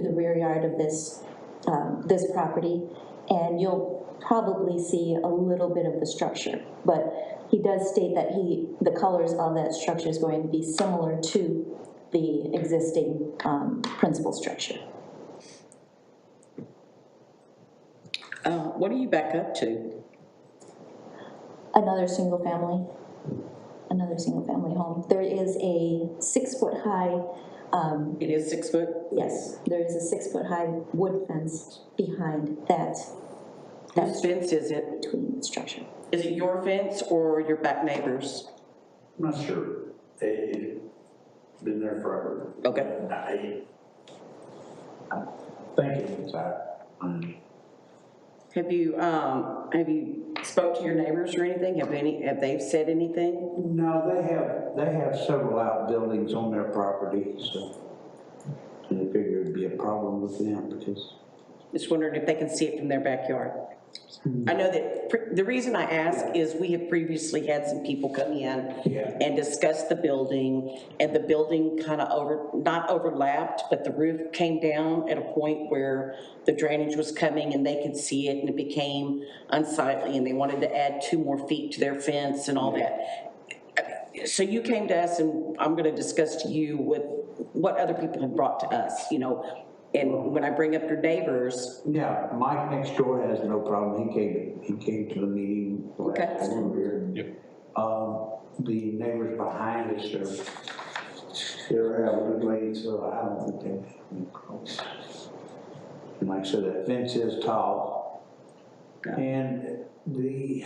to the rear yard of this, um, this property, and you'll probably see a little bit of the structure. But he does state that he, the colors of that structure is going to be similar to the existing um, principal structure. Uh, What are you back up to? Another single-family, another single-family home. There is a six-foot-high, um, It is six foot? yes, there is a six-foot-high wood fence behind that Whose fence is it? between structure. Is it your fence or your back neighbor's? I'm not sure. They've been there forever. Okay. I, I think it was that. um, Have you, um, have you spoke to your neighbors or anything? Have any, have they said anything? No, they have, they have several outbuildings on their property, so I figure it'd be a problem with them because. Just wondered if they can see it from their backyard. I know that, pr- the reason I ask is we have previously had some people come in Yeah. and discuss the building, and the building kind of over, not overlapped, but the roof came down at a point where the drainage was coming and they could see it, and it became unsightly, and they wanted to add two more feet to their fence and all that. So you came to us, and I'm gonna discuss to you with what other people have brought to us, you know? And when I bring up your neighbors, Yeah, Mike next door has no problem. He came, he came to the meeting. last Okay. time we were here. Um, the neighbors behind us are, they're elderly, so I don't think they. And like I said, that fence is tall. And the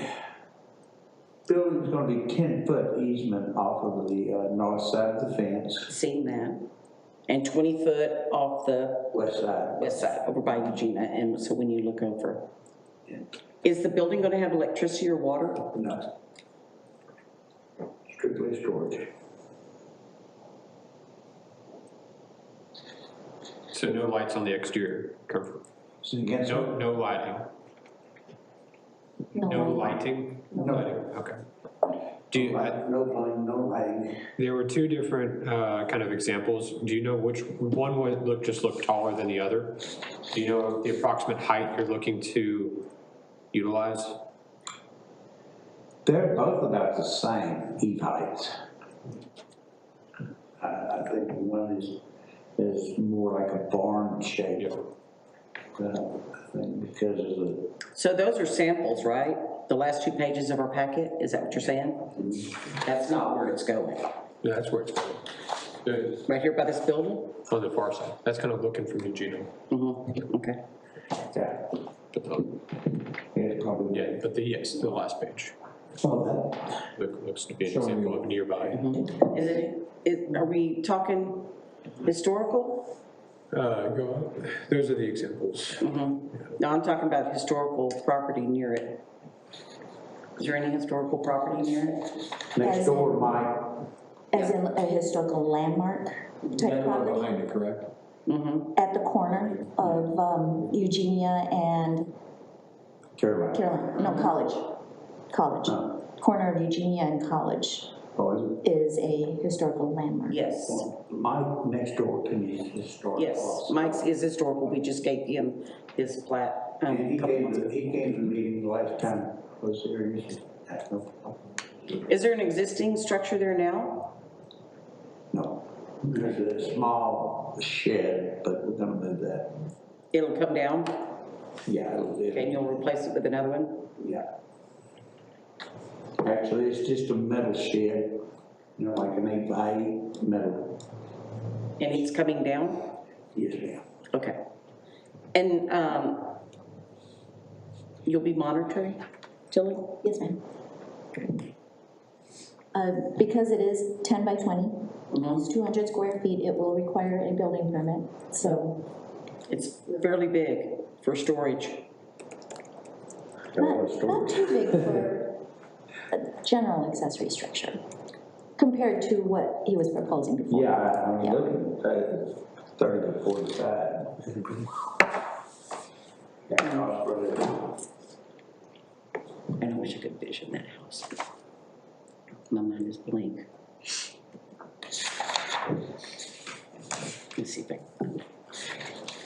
building's gonna be ten foot easement off of the, uh, north side of the fence, seeing that, and 20 foot off the west side. west side, uh, over by Eugenia, and so when you look over. Is the building gonna have electricity or water? No. Strictly storage. So no lights on the exterior, Comfort. It's against. no, no lighting, no one- lighting? No. Lighting, Okay. Do you, I- No line, no lighting. there were two different uh, kind of examples, do you know which, one would look, just looked taller than the other? Do you know the approximate height you're looking to utilize? They're both about the same heat heights. I, I think one is, is more like a barn shape. Yeah. But I think because of the, So those are samples, right? The last two pages of our packet, is that what you're saying? That's not where it's going, Yeah, that's where it's going. Good. right here by this building? On the far side, that's kind of looking from Eugene. Mm-hmm, okay. yeah, But the- it's probably. Yeah, but the, yes, the last page, So that, look- looks to be an example of nearby. Is it, is, are we talking historical? Uh, go, on. those are the examples. Mm-hmm. No, I'm talking about historical property near it. Is there any historical property near it? next As- door, Mike, As in a historical landmark type property behind it, correct? Mm-hmm, at the corner of um, Eugenia and Caroline. Carolina, no, College, College. Corner of Eugenia and College Oh, is is a historical landmark. Yes. it? Mike next door to me is historic. Yes, Mike's is historical, we just gave him his plat. um, And he couple came, months to- ago. he came to the meeting the last time I was there, and he said, that's no problem. Is there an existing structure there now? No, there's a small shed, but we're gonna move that. It'll come down, Yeah, it'll, and it'll, you'll replace it with another one? yeah. Actually, it's just a metal shed, you know, like an eight by eight metal. And it's coming down? Yes, ma'am. Okay. And um, you'll be monitoring, Tilly? Yes, ma'am. Uh, Because it is 10 by 20, Mhm. it's 200 square feet, it will require a building permit, so It's fairly big for storage. That was not, not too big storage. for a general accessory structure compared to what he was proposing before. Yeah, I- I'm Yeah. looking at that, thirty to forty-five. Yeah, I was really- And I wish I could vision that house. My mind is blank. Let's see if I,